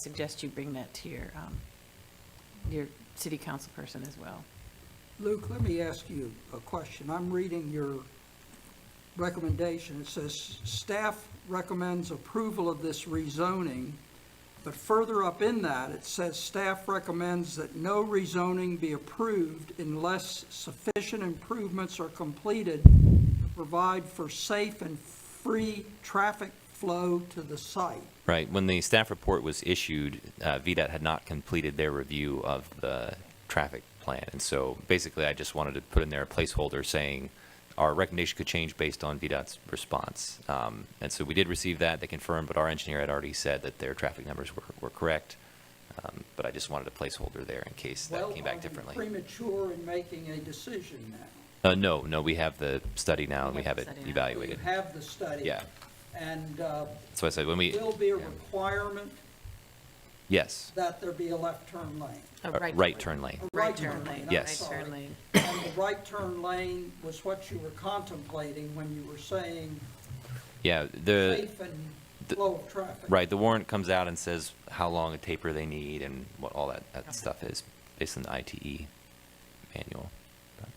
suggest you bring that to your, um, your city council person as well. Luke, let me ask you a question. I'm reading your recommendation. It says, "Staff recommends approval of this rezoning," but further up in that, it says, "Staff recommends that no rezoning be approved unless sufficient improvements are completed to provide for safe and free traffic flow to the site." Right. When the staff report was issued, uh, VDOT had not completed their review of the traffic plan. And so basically, I just wanted to put in there a placeholder saying our recommendation could change based on VDOT's response. Um, and so we did receive that. They confirmed, but our engineer had already said that their traffic numbers were, were correct. Um, but I just wanted a placeholder there in case that came back Well, um, are differently. we premature in making a decision now? Uh, no, no, we have the study now and We we have have the it study now. evaluated. We have the study. Yeah. And uh, So I said, when we. will be a yeah. requirement Yes. that there be a left turn lane. A Uh, Right turn lane. A Oh, right turn lane. I'm Yes. sorry. Right turn lane. And the right turn lane was what you were contemplating when you were saying Yeah, the. safe and the- flow of traffic. Right, the warrant comes out and says how long a taper they need and what all that, that stuff is, based on the ITE manual. But-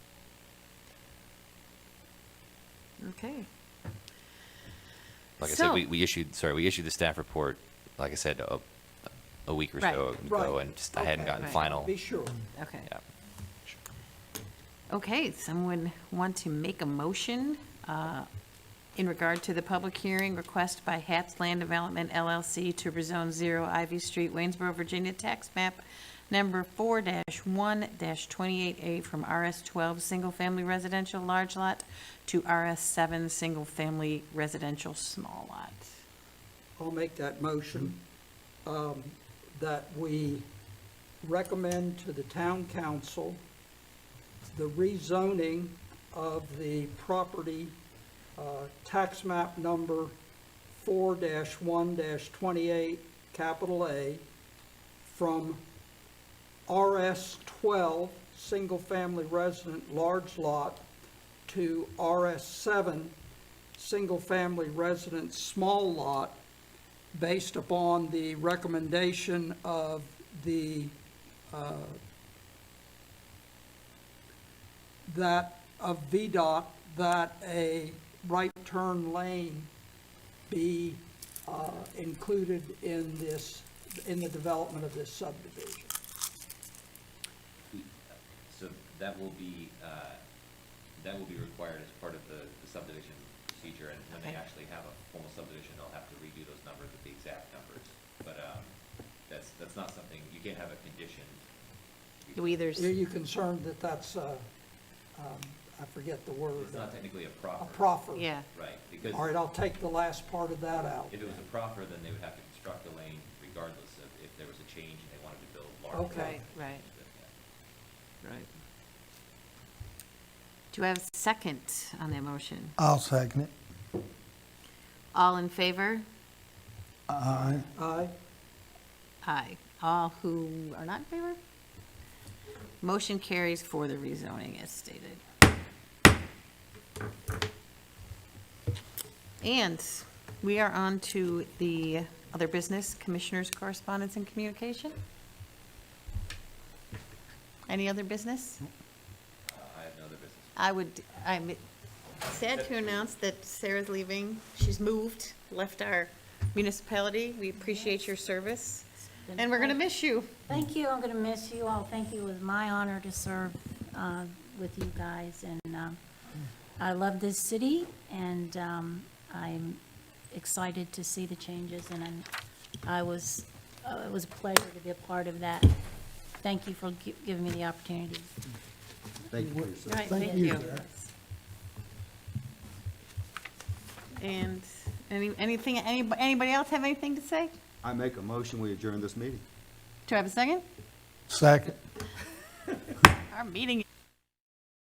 Okay. Like I said, So- we, we issued, sorry, we issued the staff report, like I said, a, a week or Right. so ago, Right. and just, I hadn't Okay. gotten Right. final. Be sure. Okay. Yeah. Okay, someone want to make a motion uh, in regard to the public hearing request by Haps Land Development LLC to rezone zero Ivy Street, Waynesboro, Virginia, tax map number four one twenty-eight A from RS twelve, single-family residential large lot to RS seven, single-family residential small lot. I'll make that motion um, that we recommend to the town council the rezoning of the property, uh, tax map number 4-1-28, capital A, from RS-12, single-family resident, large lot, to RS-7, single-family resident, small lot, based upon the recommendation of the, uh, that, of VDOT, that a right turn lane be uh, included in this, in the development of this subdivision. So that will be, uh, that will be required as part of the the subdivision procedure, and when they Okay. actually have a formal subdivision, they'll have to redo those numbers with the exact numbers. But um, that's, that's not something, you can't have a condition. Do either, Are you concerned that that's, uh, um, I forget the word, It's not a technically a proffer. proffer? yeah, Right, because All right, I'll take the last part of that out. if it was a proffer, then they would have to construct a lane regardless of if there was a change and they wanted to build larger. Okay. right, Yeah. right. Do I have a second on that motion? I'll second it. All in favor? Aye. Aye, Aye. All who are not in favor? Motion carries for the rezoning as stated. And we are on to the other business, commissioners' correspondence and communication. Any other business? Uh, I have no other business. I would, I'm sad to announce that Sarah's leaving. She's moved, left our municipality. We appreciate your service, and we're going to miss you. Thank you, I'm going to miss you all. Thank you, it was my honor to serve uh, with you guys, and um, I love this city, and um, I'm excited to see the changes, and I'm- I was, uh, it was a pleasure to be a part of that. Thank you for gi- giving me the opportunity. Right, Thank thank you, you. Sarah. And any, anything, any- anybody else have anything to say? I make a motion, we adjourn this meeting. Do I have a second? Second. Our meeting